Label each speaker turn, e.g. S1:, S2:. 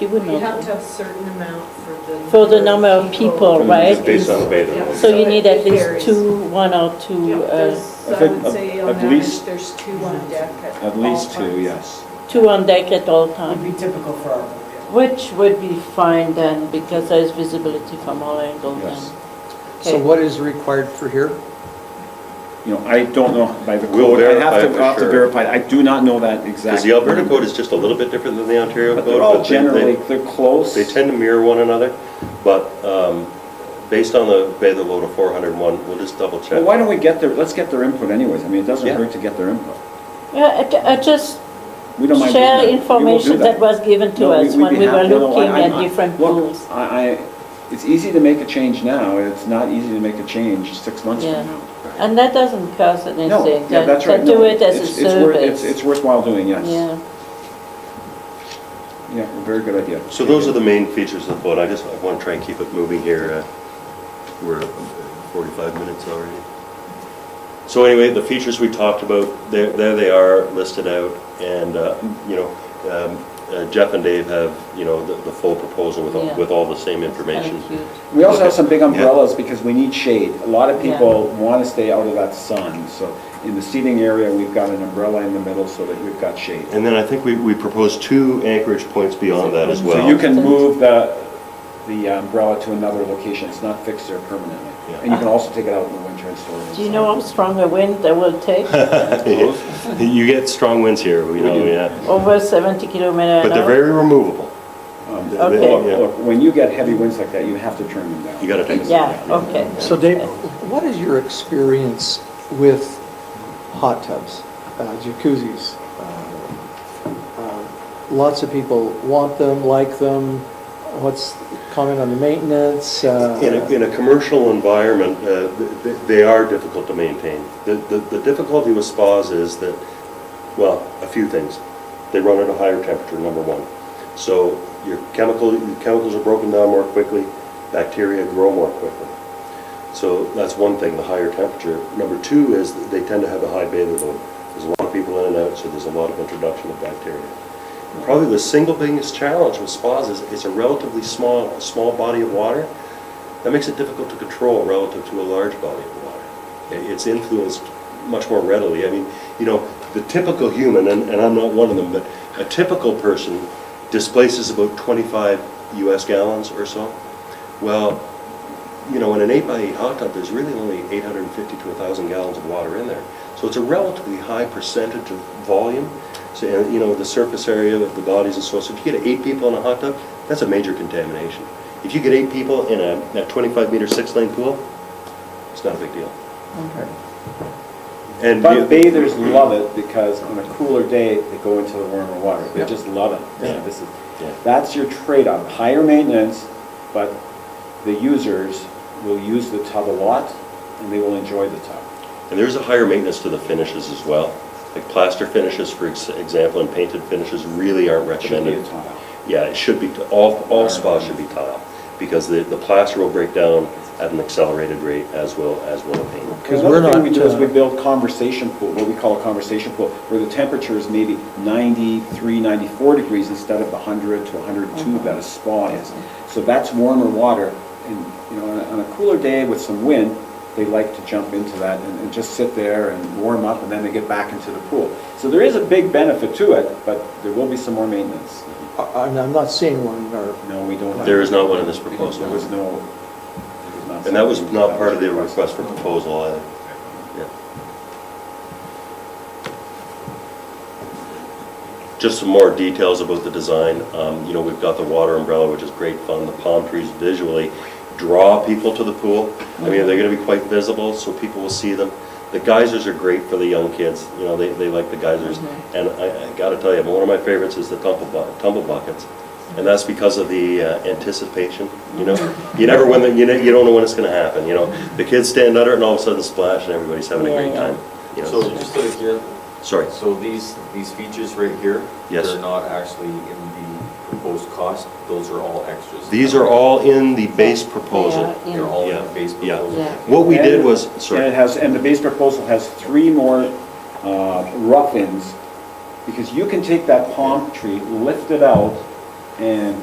S1: you would
S2: You have
S1: know.
S2: to have certain amount for the.
S1: For the number of people, right?
S3: It's based on beta.
S2: Yeah.
S1: So you need at
S2: It
S1: least
S2: varies.
S1: two, one or two,
S2: Yeah,
S1: uh,
S2: there's,
S4: I
S2: I
S4: think
S2: would
S4: at-
S2: say
S4: at
S2: on average,
S4: least-
S2: there's two on deck at all
S4: At least two,
S2: times.
S4: yes.
S1: two on deck at all
S5: Would
S1: times.
S5: be typical for our area.
S1: Which would be fine then, because there's visibility from all angles
S4: Yes.
S1: then.
S6: So
S1: Okay.
S6: what is required for here?
S4: You know, I don't know by the
S3: We'll
S4: code, I have
S3: verify
S4: to,
S3: for
S4: I'll have to
S3: sure.
S4: verify, I do not know that exactly.
S3: Because the Alberta code is just a little bit different than the Ontario
S4: But
S3: code.
S4: they're all
S3: they- they-
S4: generally, they're close.
S3: They tend to mirror one another, but um, based on the beta load of 401, we'll just double check.
S4: Well, why don't we get their, let's get their input anyways, I mean, it doesn't
S3: Yeah.
S4: hurt to get their input.
S1: Yeah, I ju- I just
S4: We don't mind. doing
S1: share
S4: that. We will do
S1: information that was given to
S4: No,
S1: us
S4: we'd
S1: when
S4: be
S1: we were
S4: happy- no, no,
S1: looking
S4: I- I'm
S1: at
S4: not-
S1: different
S4: Look,
S1: pools.
S4: I, I, it's easy to make a change now, it's not easy to make a change six months
S1: Yeah.
S4: from now.
S1: And that doesn't cost
S4: No,
S1: anything.
S4: yeah, that's
S1: They-
S4: right.
S1: They do
S4: No,
S1: it as a
S4: it's- it's worth-
S1: service.
S4: It's, it's worthwhile doing, yes.
S1: Yeah.
S4: Yeah, very good idea.
S3: So those are the main features of the vote. I just want to try and keep it moving here. uh, We're at 45 minutes already. So anyway, the features we talked about, there there they are listed out. And, uh, you know, um, uh, Jeff and Dave have, you know, the the full proposal with all,
S1: Yeah.
S3: with all the same
S1: Kinda
S3: information.
S1: cute.
S4: We also have some big
S3: Yeah.
S4: umbrellas because we need shade. A lot of
S1: Yeah.
S4: people want to stay out of that sun, so in the seating area, we've got an umbrella in the middle so that we've got shade.
S3: And then I think we we proposed two anchorage points beyond that as well.
S4: So you can move the, the uh, umbrella to another location, it's not fixed there permanently.
S3: Yeah.
S4: And you can also take it out in the winter and store it inside.
S1: Do you know how strong a wind that will take?
S3: You get strong winds here, you know, yeah.
S1: Over 70 kilometer
S3: But
S1: an
S3: they're
S1: hour?
S3: very removable.
S4: Um,
S3: They-
S1: Okay.
S3: they-
S4: Look,
S3: yeah.
S4: look, when you get heavy winds like that, you have to turn them down.
S3: You gotta take them.
S1: Yeah, okay.
S6: So Dave, what is your experience with hot tubs, uh, jacuzzis? Uh, uh, Lots of people want them, like them. What's comment on the maintenance? uh,
S3: In a, in a commercial environment, uh, th- th- they are difficult to maintain. The, the the difficulty with spas is that, well, a few things. They run at a higher temperature, number one. So your chemical, your chemicals are broken down more quickly, bacteria grow more quickly. So that's one thing, the higher temperature. Number two is that they tend to have a high beta load. There's a lot of people in and out, so there's a lot of introduction of bacteria. Probably the single biggest challenge with spas is it's a relatively small, small body of water. That makes it difficult to control relative to a large body of water. I- It's influenced much more readily. I mean, you know, the typical human, and, and I'm not one of them, but a typical person displaces about 25 US gallons or so. Well, you know, in an eight by eight hot tub, there's really only 850 to 1,000 gallons of water in there. So it's a relatively high percentage of volume. So, and, you know, the surface area of the bodies and so on. So if you get eight people in a hot tub, that's a major contamination. If you get eight people in a, a 25 meter six lane pool, it's not a big deal. And you-
S4: But bathers love it because on a cooler day, they go into the warmer water. They just love it.
S3: Yeah.
S4: Yeah, This is,
S3: Yeah.
S4: that's your trade-off, higher maintenance, but the users will use the tub a lot and they will enjoy the tub.
S3: And there's a higher maintenance to the finishes as well. Like plaster finishes, for ex- example, and painted finishes really aren't
S4: It should be a
S3: recommended.
S4: tile.
S3: Yeah, it should be, all, all spas should be tile, because the, the plaster will break down at an accelerated rate as will, as will the paint.
S6: Because
S4: Another
S6: we're
S4: thing
S6: not,
S4: we do is
S6: uh,
S4: we build conversation pool, what we call a conversation pool, where the temperature is maybe 93, 94 degrees instead of the 100 to
S6: Mm-hmm.
S4: 102 that a spa is. So that's warmer water, and, you know, on a- on a cooler day with some wind, they like to jump into that and and just sit there and warm up, and then they get back into the pool. So there is a big benefit to it, but there will be some more maintenance.
S6: I- I'm I'm not seeing one in our
S4: No, we don't. have-
S3: There is not one in this proposal.
S4: There was no, there was not.
S3: And that was
S4: something
S3: not part of the
S4: was requested.
S3: request for proposal either. Yeah. Just some more details about the design. Um, You know, we've got the water umbrella, which is great fun. The palm trees visually draw people to the pool. I mean, they're going to be quite visible, so people will see them. The geysers are great for the young kids, you know, they, they like the geysers.
S1: Mm-hmm.
S3: And I, I got to tell you, one of my favorites is the tumble bu- tumble buckets. And that's because of the uh, anticipation, you know?
S1: Mm-hmm.
S3: You never, when, the- you know, you don't know when it's going to happen, you know? The kids stand under it and all of a sudden splash and everybody's having a great
S1: Yeah, yeah.
S3: time. you know?
S7: So just to hear,
S3: Sorry.
S7: so these, these features right here?
S3: Yes.
S7: They're not actually in the proposed cost, those are all extras.
S3: These are all in the base proposal.
S1: Yeah,
S7: They're all in the
S3: Yeah,
S7: base
S3: yeah.
S7: proposal?
S1: Yeah.
S3: What we did
S4: And-
S3: was,
S4: And it
S3: sorry,
S4: has, and the base proposal has three more uh, rough-ins, because you can take that palm tree, lift it out, And